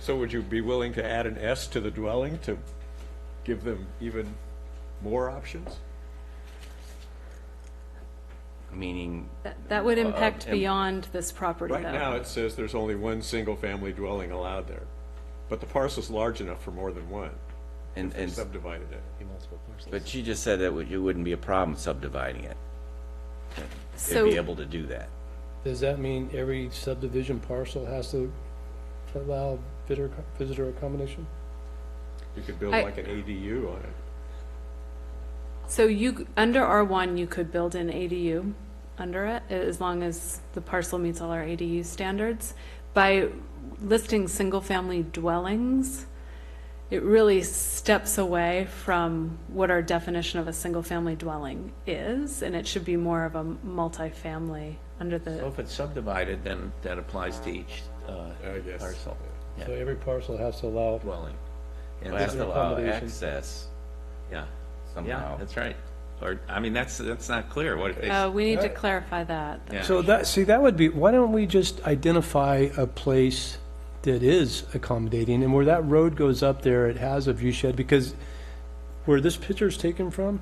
So would you be willing to add an S to the dwelling to give them even more options? meaning, That- That would impact and- beyond this property, though. Right now, it says there's only one single-family dwelling allowed there, but the parcel's large enough for more than one. and, They and, subdivided it. but you just said that would- it wouldn't be a problem subdividing it. They'd be So, able to do that. Does that mean every subdivision parcel has to allow visitor, visitor accommodation? You could build I- like an ADU on it. so you, under R1, you could build an ADU under it, as long as the parcel meets all our ADU standards. By listing single-family dwellings, it really steps away from what our definition of a single-family dwelling is, and it should be more of a multifamily under So the, if it's subdivided, then that applies to each uh, I guess, parcel So every parcel has to allow, dwelling. And It has that's, to allow accommodation. access yeah, yeah, somehow. that's right. Or, I mean, that's, that's not clear what it oh, is. we need to clarify that. Yeah. so that, see, that would be, why don't we just identify a place that is accommodating, and where that road goes up there, it has a view shed, because where this picture's taken from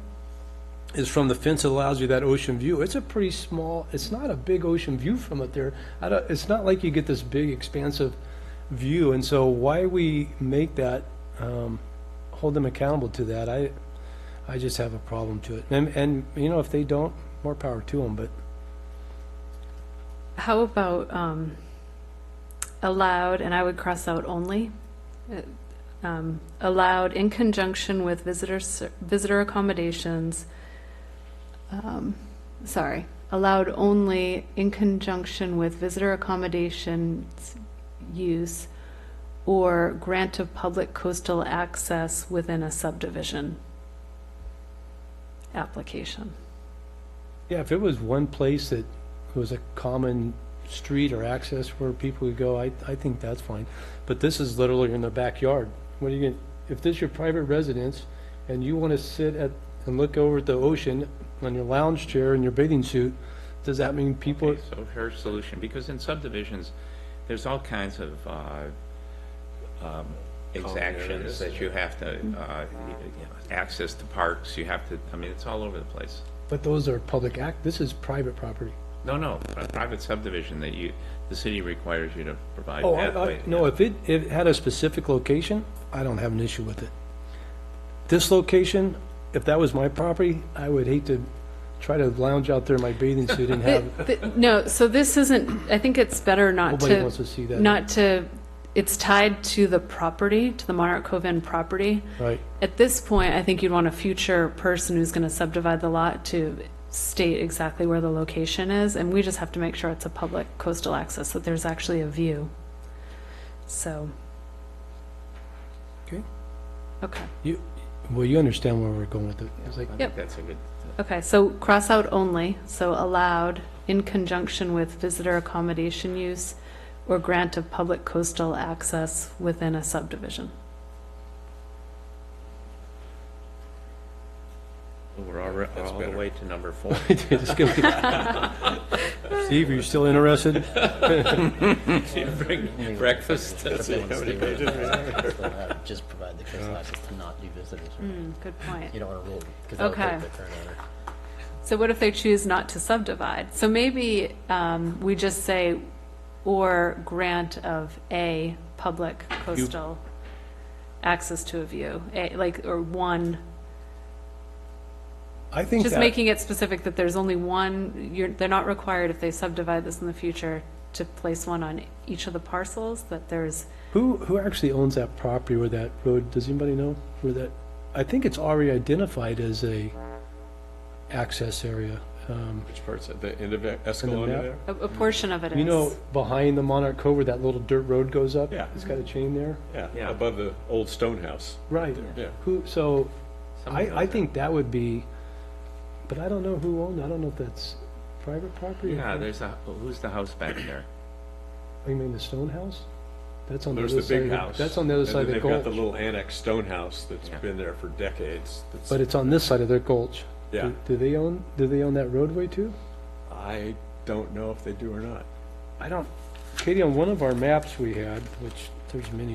is from the fence that allows you that ocean view. It's a pretty small, it's not a big ocean view from up there. I don't, it's not like you get this big expansive view, and so why we make that, um, hold them accountable to that, I, I just have a problem to it. And, and, you know, if they don't, more power to them, but How about um, allowed, and I would cross out only, uh, um, allowed in conjunction with visitor, ser- visitor accommodations, um, sorry, allowed only in conjunction with visitor accommodations use or grant of public coastal access within a subdivision application. Yeah, if it was one place that was a common street or access where people would go, I, I think that's fine. But this is literally in the backyard. What are you gonna, if this is your private residence and you wanna sit at, and look over at the ocean on your lounge chair in your bathing suit, does that mean people, Okay, So her solution, because in subdivisions, there's all kinds of uh, um, Oh, exactions areas. that you have to, uh, Mm-hmm. you know, access to parks, you have to, I mean, it's all over the place. but those are public act, this is private property. No, no, a private subdivision that you, the city requires you to provide Oh, I, pathway. I, no, if it, it had a specific location, I don't have an issue with it. This location, if that was my property, I would hate to try to lounge out there in my bathing suit and have, Th- th- No, so this isn't, I think it's better not nobody wants to to, see that. not to, it's tied to the property, to the Monarch Cove Inn property. Right, At this point, I think you'd want a future person who's going to subdivide the lot to state exactly where the location is, and we just have to make sure it's a public coastal access, that there's actually a view. So. Okay. Okay, you, well, you understand where we're going with it. It's like, I Yep. think that's a good, okay, so cross out only, so allowed in conjunction with visitor accommodation use or grant of public coastal access within a subdivision. we're alre- all the better. way to number four. it's gonna be- Steve, are you still interested? Bring Breakfast. Just provide the coastal access to not do visitors. right? Hmm, Good point. You don't want to rule, because that would Okay. break the current order. So what if they choose not to subdivide? So maybe um, we just say, or grant of a public coastal access to a view, a- like, or one, I think just that, making it specific that there's only one, you're, they're not required if they subdivide this in the future to place one on each of the parcels, that there's, who, who actually owns that property where that road, does anybody know where that? I think it's already identified as a access area. Um, Which part's at the end of Escalona map? there? a, a portion of it is. You know, behind the Monarch Cove where that little dirt road goes up? Yeah. It's got a chain there? Yeah, Yeah. above the old stone house. Right. Yeah. Who, so, I, I think that would be, but I don't know who owned, I don't know if that's private property? or- Yeah, there's a, who's the house back there? You mean the stone house? That's on the There's other the side. big of the- house. That's on the other and side then of the They've got the gulch. little annex stone house that's Yeah. been there for decades. that's- But it's on this side of their gulch. Do- Yeah. Do they own, do they own that roadway too? I don't know if they do or not. I don't. Katie, on one of our maps we had, which there's many